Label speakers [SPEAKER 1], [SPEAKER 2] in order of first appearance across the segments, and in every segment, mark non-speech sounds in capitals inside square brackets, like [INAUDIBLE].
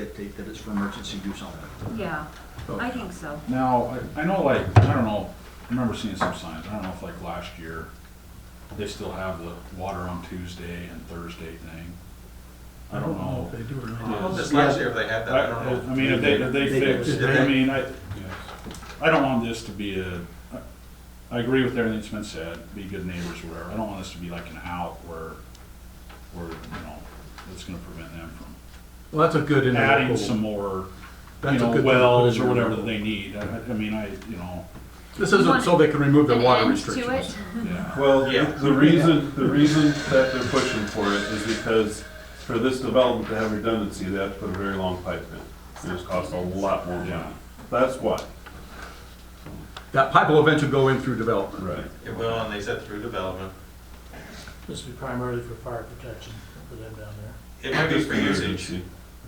[SPEAKER 1] dictate that it's for emergency use only.
[SPEAKER 2] Yeah, I think so.
[SPEAKER 3] Now, I, I know like, I don't know, I remember seeing some signs, I don't know if like last year, they still have the water on Tuesday and Thursday thing. I don't know.
[SPEAKER 4] They do or
[SPEAKER 3] Yeah.
[SPEAKER 4] not.
[SPEAKER 5] This last year, if they had that, I
[SPEAKER 3] I,
[SPEAKER 5] don't
[SPEAKER 3] I
[SPEAKER 5] know.
[SPEAKER 3] mean, if they, if they
[SPEAKER 1] They did.
[SPEAKER 3] fixed,
[SPEAKER 5] Did
[SPEAKER 3] I
[SPEAKER 5] they?
[SPEAKER 3] mean, I, I don't want this to be a, I- I agree with everything that's been said, be good neighbors or whatever, I don't want this to be like an out where, where, you know, it's gonna prevent them from
[SPEAKER 4] Well, that's a good
[SPEAKER 3] adding
[SPEAKER 4] interlocal.
[SPEAKER 3] some more, you
[SPEAKER 4] That's a good
[SPEAKER 3] know,
[SPEAKER 4] thing to put
[SPEAKER 3] wells
[SPEAKER 4] in
[SPEAKER 3] or
[SPEAKER 4] there.
[SPEAKER 3] whatever that they need, I, I- I mean, I, you know,
[SPEAKER 4] This
[SPEAKER 2] You
[SPEAKER 4] isn't
[SPEAKER 2] want
[SPEAKER 4] so they can remove the
[SPEAKER 2] an
[SPEAKER 4] water
[SPEAKER 2] end to it?
[SPEAKER 4] restrictions.
[SPEAKER 3] yeah.
[SPEAKER 6] Well,
[SPEAKER 5] Yeah.
[SPEAKER 6] the- the reason, the reason that they're pushing for it is because for this development to have redundancy, they have to put a very long pipe in. And it's cost a lot more money. That's why.
[SPEAKER 4] That pipe will eventually go in through development.
[SPEAKER 6] Right.
[SPEAKER 5] It will, and they said through development.
[SPEAKER 7] This is primarily for fire protection for them down there.
[SPEAKER 5] It might be for usage.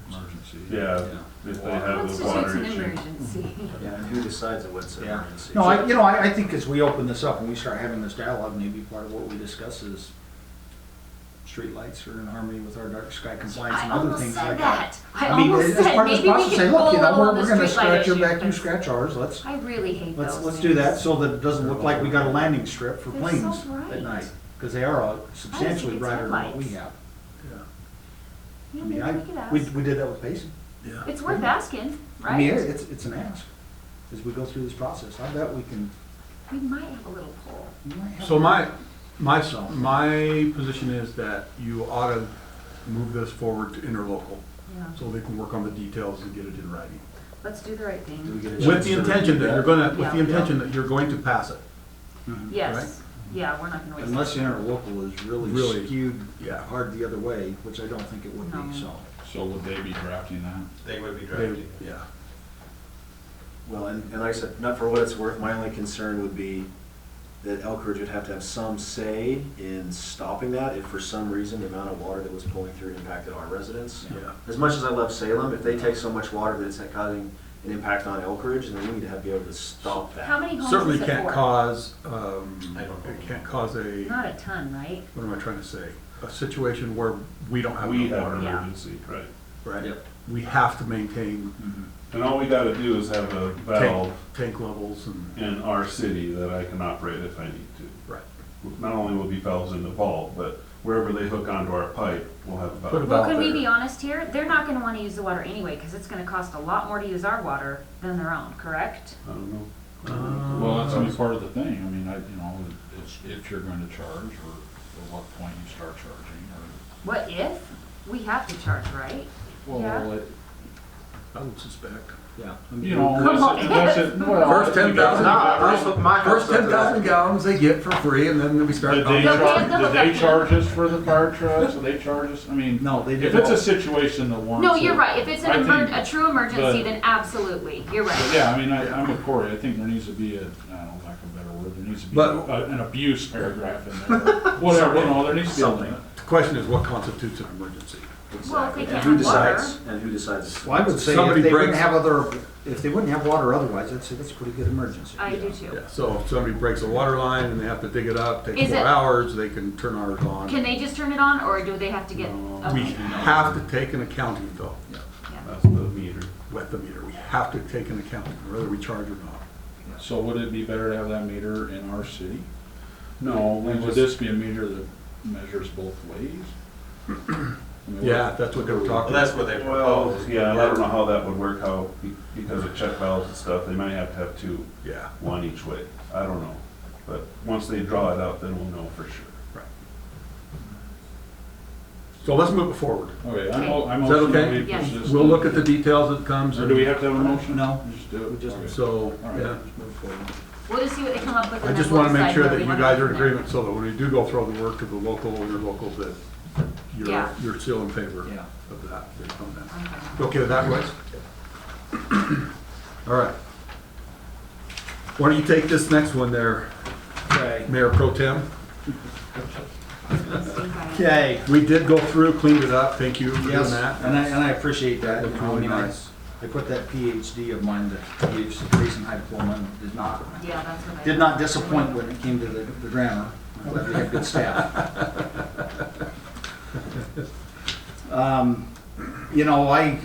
[SPEAKER 3] Emergency.
[SPEAKER 6] Yeah, if they have
[SPEAKER 2] Constitutes
[SPEAKER 6] the water
[SPEAKER 2] an
[SPEAKER 6] issue.
[SPEAKER 2] emergency.
[SPEAKER 8] Yeah, and who decides what's an
[SPEAKER 1] Yeah.
[SPEAKER 8] emergency?
[SPEAKER 1] No, I, you know, I, I think as we open this up and we start having this dialogue, maybe part of what we discuss is streetlights are in harmony with our dark sky compliance
[SPEAKER 2] I
[SPEAKER 1] and other
[SPEAKER 2] almost
[SPEAKER 1] things
[SPEAKER 2] said
[SPEAKER 1] like that.
[SPEAKER 2] that. I
[SPEAKER 1] mean,
[SPEAKER 2] almost
[SPEAKER 1] as
[SPEAKER 2] said,
[SPEAKER 1] part of this
[SPEAKER 2] maybe we
[SPEAKER 1] process, say,
[SPEAKER 2] could
[SPEAKER 1] look,
[SPEAKER 2] go
[SPEAKER 1] you know,
[SPEAKER 2] along
[SPEAKER 1] we're-
[SPEAKER 2] the
[SPEAKER 1] We're gonna
[SPEAKER 2] streetlight
[SPEAKER 1] scratch your
[SPEAKER 2] issue.
[SPEAKER 1] back, you
[SPEAKER 2] but
[SPEAKER 1] scratch ours, let's,
[SPEAKER 2] I really hate those
[SPEAKER 1] let's,
[SPEAKER 2] things.
[SPEAKER 1] let's do that so that it doesn't look like we got a landing strip for
[SPEAKER 2] They're so
[SPEAKER 1] planes at
[SPEAKER 2] bright.
[SPEAKER 1] night. Cause they are all substantially
[SPEAKER 2] it's
[SPEAKER 1] brighter than what we
[SPEAKER 2] headlights.
[SPEAKER 1] have.
[SPEAKER 2] You
[SPEAKER 1] I
[SPEAKER 2] know,
[SPEAKER 1] mean,
[SPEAKER 2] maybe we could
[SPEAKER 1] I, we,
[SPEAKER 2] ask.
[SPEAKER 1] we did that with Payson.
[SPEAKER 4] Yeah.
[SPEAKER 2] It's worth asking,
[SPEAKER 1] I mean,
[SPEAKER 2] right?
[SPEAKER 1] it's, it's an ask as we go through this process. I bet we can.
[SPEAKER 2] We might have a little poll.
[SPEAKER 1] we might have-
[SPEAKER 4] So my, my, my position is that you ought to move this forward to interlocal,
[SPEAKER 2] Yeah,
[SPEAKER 4] so they can work on the details and get it in writing.
[SPEAKER 2] let's do the right
[SPEAKER 8] Do we
[SPEAKER 2] thing.
[SPEAKER 8] get a
[SPEAKER 4] With
[SPEAKER 8] chance
[SPEAKER 4] the
[SPEAKER 8] to
[SPEAKER 4] intention that
[SPEAKER 8] review
[SPEAKER 4] you're gonna, with the
[SPEAKER 2] Yeah.
[SPEAKER 4] intention that you're going to pass it.
[SPEAKER 2] Yes, yeah, we're not gonna waste.
[SPEAKER 1] Unless interlocal is really
[SPEAKER 4] Really.
[SPEAKER 1] skewed
[SPEAKER 4] Yeah.
[SPEAKER 1] hard the other way, which I don't think it would
[SPEAKER 2] No.
[SPEAKER 1] be, so.
[SPEAKER 3] So would they be drafting that?
[SPEAKER 5] They would be
[SPEAKER 4] They-
[SPEAKER 5] drafting.
[SPEAKER 4] Yeah.
[SPEAKER 8] Well, and, and like I said, not for what it's worth, my only concern would be that Elk Ridge would have to have some say in stopping that if for some reason the amount of water that was pulling through impacted our residents.
[SPEAKER 4] Yeah.
[SPEAKER 8] As much as I love Salem, if they take so much water that it's causing an impact on Elk Ridge, then we need to have, be able to stop that.
[SPEAKER 2] How many homes is it for?
[SPEAKER 4] Certainly can't cause, um,
[SPEAKER 5] I don't know.
[SPEAKER 4] it can't cause a,
[SPEAKER 2] Not a ton, right?
[SPEAKER 4] what am I trying to say? A situation where we don't have
[SPEAKER 6] We
[SPEAKER 4] enough
[SPEAKER 6] have an
[SPEAKER 4] water,
[SPEAKER 2] Yeah.
[SPEAKER 6] emergency, right.
[SPEAKER 4] right? We have to maintain
[SPEAKER 6] And all we gotta do is have a valve
[SPEAKER 4] tank, tank levels and,
[SPEAKER 6] in our city that I can operate if I need to.
[SPEAKER 4] right.
[SPEAKER 6] Not only will be valves in the vault, but wherever they hook onto our pipe, we'll have a valve.
[SPEAKER 4] Put a
[SPEAKER 2] Well,
[SPEAKER 4] valve
[SPEAKER 2] can we
[SPEAKER 4] there.
[SPEAKER 2] be honest here? They're not gonna wanna use the water anyway, cause it's gonna cost a lot more to use our water than their own, correct?
[SPEAKER 6] I don't know.
[SPEAKER 3] Well, that's only part of the thing, I mean, I, you know, it's, if you're going to charge, or at what point you start charging,
[SPEAKER 2] What if? We have to charge, right?
[SPEAKER 3] or.
[SPEAKER 2] Yeah.
[SPEAKER 3] Well, it-
[SPEAKER 4] I would suspect.
[SPEAKER 1] Yeah.
[SPEAKER 3] You know,
[SPEAKER 2] [LAUGHS]
[SPEAKER 3] that's it,
[SPEAKER 2] Come on. [LAUGHS]
[SPEAKER 3] that's it, well.
[SPEAKER 4] First
[SPEAKER 3] you gotta
[SPEAKER 4] 10,000.
[SPEAKER 3] think about it.
[SPEAKER 4] First ten thousand gallons they get for free and then we start.
[SPEAKER 3] Did they
[SPEAKER 2] They'll
[SPEAKER 3] charge,
[SPEAKER 2] pay- they'll
[SPEAKER 3] did they
[SPEAKER 2] look at-
[SPEAKER 3] charge us for the fire trucks, did they charge us, I mean,
[SPEAKER 1] No, they
[SPEAKER 3] if
[SPEAKER 1] did.
[SPEAKER 3] it's a situation that warrants.
[SPEAKER 2] No, you're
[SPEAKER 3] it-
[SPEAKER 2] right. If it's an
[SPEAKER 3] I
[SPEAKER 2] emer-
[SPEAKER 3] think-
[SPEAKER 2] a true emergency,
[SPEAKER 3] but-
[SPEAKER 2] then absolutely, you're
[SPEAKER 3] But
[SPEAKER 2] right.
[SPEAKER 3] Yeah, I mean, I, I'm with Cory, I think there needs to be a, I don't know, lack of a better word, there needs to be
[SPEAKER 4] But-
[SPEAKER 3] a- an abuse paragraph in there, whatever, you know, there needs to be something.
[SPEAKER 4] The Question is what constitutes an emergency?
[SPEAKER 2] Well, if they
[SPEAKER 8] And
[SPEAKER 2] can't
[SPEAKER 8] who
[SPEAKER 2] have water.
[SPEAKER 8] decides? And who decides?
[SPEAKER 1] Well, I would say
[SPEAKER 4] Somebody
[SPEAKER 1] if they wouldn't
[SPEAKER 4] breaks-
[SPEAKER 1] have other, if they wouldn't have water otherwise, I'd say that's a pretty good emergency.
[SPEAKER 2] I do too.
[SPEAKER 4] Yeah, so if somebody breaks a water line and they have to dig it up, take
[SPEAKER 2] Is
[SPEAKER 4] four
[SPEAKER 2] it-
[SPEAKER 4] hours, they can turn ours on.
[SPEAKER 2] Can they just turn it on or do they have to get?
[SPEAKER 4] We
[SPEAKER 2] Okay.
[SPEAKER 4] have to take an accounting though,
[SPEAKER 6] That's the meter.
[SPEAKER 4] with the meter. We have to take an accounting, whether we charge or not.
[SPEAKER 3] So would it be better to have that meter in our city?
[SPEAKER 6] No,
[SPEAKER 3] And would this be a meter that measures both ways? I mean,
[SPEAKER 4] Yeah, that's what they were
[SPEAKER 5] Well,
[SPEAKER 4] talking
[SPEAKER 5] that's
[SPEAKER 4] about.
[SPEAKER 5] what they
[SPEAKER 6] Well,
[SPEAKER 5] proposed.
[SPEAKER 6] yeah, and I don't know how that would work, how, be- because of check valves and stuff, they might have to have two,
[SPEAKER 4] Yeah,
[SPEAKER 6] one each way. I don't know. But once they draw it up, then we'll know for sure.
[SPEAKER 4] so let's move it forward.
[SPEAKER 3] Okay, I'm, o- I'm
[SPEAKER 4] Is that
[SPEAKER 3] also
[SPEAKER 4] okay?
[SPEAKER 3] gonna be
[SPEAKER 2] Yes.
[SPEAKER 3] persistent.
[SPEAKER 4] We'll look at the details that comes.
[SPEAKER 3] Or
[SPEAKER 4] and-
[SPEAKER 3] do we have to have a motion?
[SPEAKER 1] No.
[SPEAKER 3] We Just do it.
[SPEAKER 1] We just-
[SPEAKER 3] Okay.
[SPEAKER 4] So,
[SPEAKER 3] All right.
[SPEAKER 4] yeah.
[SPEAKER 2] We'll just see what they come up with.
[SPEAKER 4] I
[SPEAKER 2] and
[SPEAKER 4] just
[SPEAKER 2] then we'll
[SPEAKER 4] want to
[SPEAKER 2] decide
[SPEAKER 4] make sure
[SPEAKER 2] where
[SPEAKER 4] that
[SPEAKER 2] we
[SPEAKER 4] you
[SPEAKER 2] wanna
[SPEAKER 4] guys
[SPEAKER 2] go
[SPEAKER 4] are in
[SPEAKER 2] from there.
[SPEAKER 4] agreement, so that when we do go throw the work to the local, interlocals, that you're,
[SPEAKER 2] Yeah.
[SPEAKER 4] you're still in favor
[SPEAKER 1] Yeah.
[SPEAKER 4] of that. that come down.
[SPEAKER 2] Okay.
[SPEAKER 4] You Okay with that, Royce? All right. Why don't you take this next one there,
[SPEAKER 1] Okay.
[SPEAKER 4] Mayor Pro Tem?
[SPEAKER 2] Let's see if I-
[SPEAKER 1] Okay.
[SPEAKER 4] We did go through, cleaned it up, thank you for doing
[SPEAKER 1] Yes,
[SPEAKER 4] that.
[SPEAKER 1] and I, and I appreciate that.
[SPEAKER 4] Looked
[SPEAKER 1] you know, I
[SPEAKER 4] really
[SPEAKER 1] mean, I-
[SPEAKER 4] nice.
[SPEAKER 1] I put that PhD of mine that gives the reason high diploma and did not,
[SPEAKER 2] Yeah, that's what I.
[SPEAKER 1] did not disappoint when it came to the, the grammar. I'm glad we have good staff. Um, You know, I,